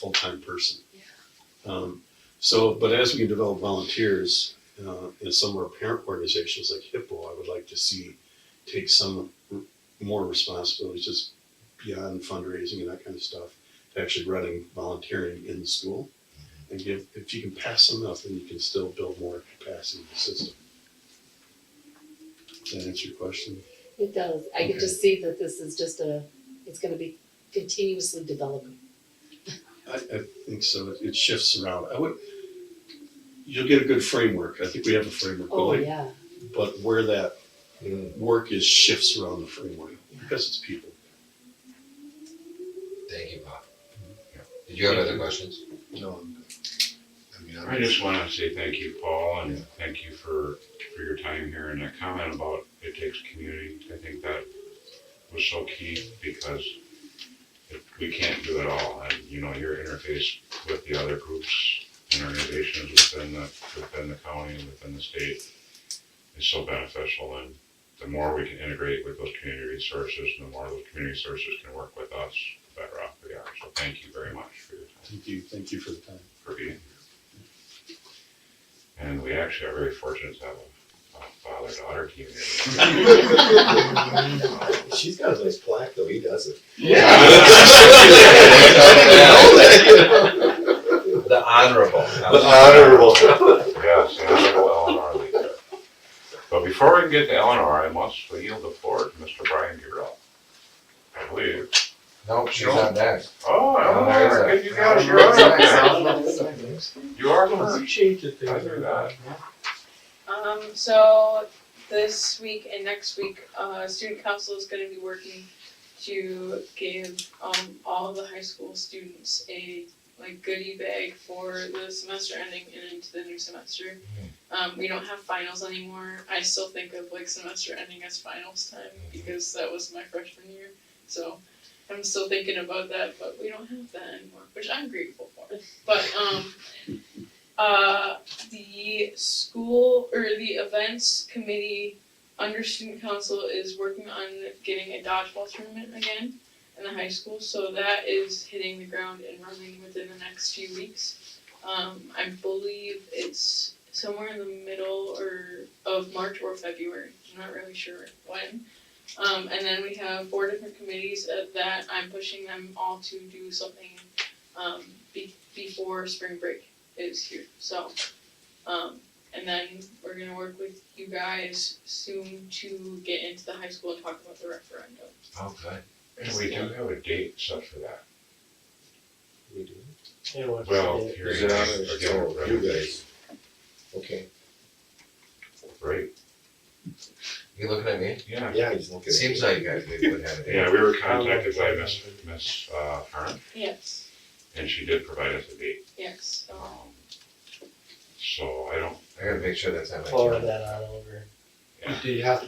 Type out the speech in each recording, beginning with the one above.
full-time person. Yeah. Um, so, but as we develop volunteers, uh, in some of our parent organizations like HIPPO, I would like to see take some r- more responsibilities just beyond fundraising and that kind of stuff, to actually running volunteering in the school. And give, if you can pass enough, then you can still build more capacity in the system. Does that answer your question? It does. I can Okay. just see that this is just a, it's gonna be continuously developing. I, I think so. It- It shifts around. I would, you'll get a good framework. I think we have a framework. but Oh, like- yeah. But where that work is shifts around the framework because it's people. Thank you, Bob. Did you have other questions? No, I mean, I'm- I just want to say thank you, Paul, and thank you for, for your time here and that comment about it takes community. I think that was so key because it- we can't do it all. And, you know, your interface with the other groups and organizations within the, within the county and within the state is so beneficial. And the more we can integrate with those community resources, and the more those community resources can work with us, the better off we are. So thank you very much for your time thank you, thank you for the time. for being here. And we actually are very fortunate to have a- a father-daughter team here. She's got a nice plaque, though, he doesn't. The honorable. The honorable. Yes, and I know Eleanor Lee. But before we can get to Eleanor, I must yield the floor to Mr. Brian Giroux. I believe. Nope, she's not next. Oh, Eleanor, I think you got it, you're up She's there. You are first. Appreciate it. I knew that. Um, so this week and next week, uh, student council is gonna be working to give, um, all the high school students a like goodie bag for the semester ending and into the new semester. Um, we don't have finals anymore. I still think of like semester ending as finals time because that was my freshman year. So I'm still thinking about that, but we don't have that anymore, which I'm grateful for. But, um, uh, the school or the events committee under student council is working on getting a dodgeball tournament again in the high school, so that is hitting the ground and running within the next few weeks. Um, I believe it's somewhere in the middle or of March or February. I'm not really sure when. Um, and then we have four different committees uh, that I'm pushing them all to do something um, be- before spring break is here. So um, and then we're gonna work with you guys soon to get into the high school and talk about the referendum. Oh, good. And we do have a date set for that. Well, Well, here you go. You guys. Okay, Right, you looking at me? yeah. yeah, he's looking. It seems like I maybe would have it. Yeah, we were contacted by Miss, Miss, uh, Harn. Yes. And she did provide us a date, Yes, um, so so I don't, I gotta make sure that's on my. Forward calendar. that on over. Do you have,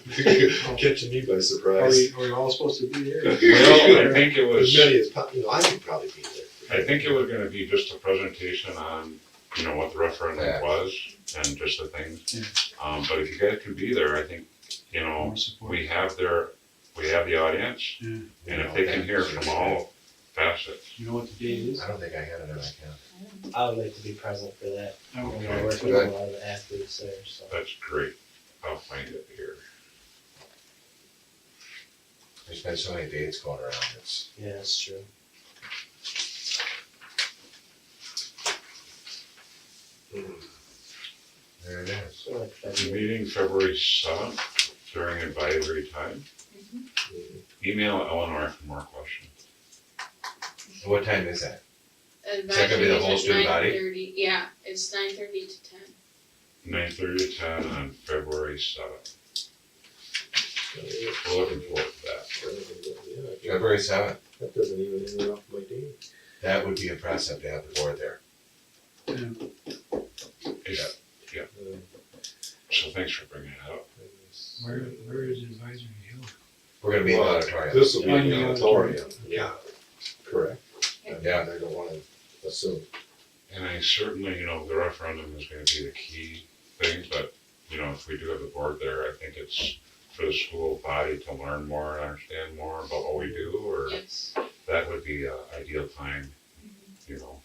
Catching me by are surprise. we, are we all supposed to be here? well, I think it As was, many as, po- you know, I could probably be there. I think it was gonna be just a presentation on, you know, what the referendum Yeah. was and just the things. Um, but if you guys could be there, I think, you know, we have their, we have the audience, and if they can hear from all facets. You know what the date is? I don't think I had it on my calendar. I would like to be present for that. I'm gonna Okay, work with a lot of athletes there, so. that's great, I'll find it here. There's been so many dates going around, it's, Yeah, that's true. there it is. So like February. Meeting February seventh during advisory time. Email Eleanor for more questions. What time is that? advisory that gonna be the whole is student nine body? thirty, yeah, it's nine thirty to ten. Nine thirty to ten on February seventh, we're looking forward to that. Yeah, I think February seventh, That doesn't even interrupt my day. that would be impressive to have the board there. Is- So thanks for bringing it up. Where, where is advisory hill? We're gonna be in the auditorium, This will be in the auditorium. Yeah. Correct. Yeah. I don't wanna assume. And I certainly, you know, the referendum is gonna be the key thing, but, you know, if we do have the board there, I think it's for the school body to learn more and understand more about what we do, or Yes, that would be an ideal time. you know.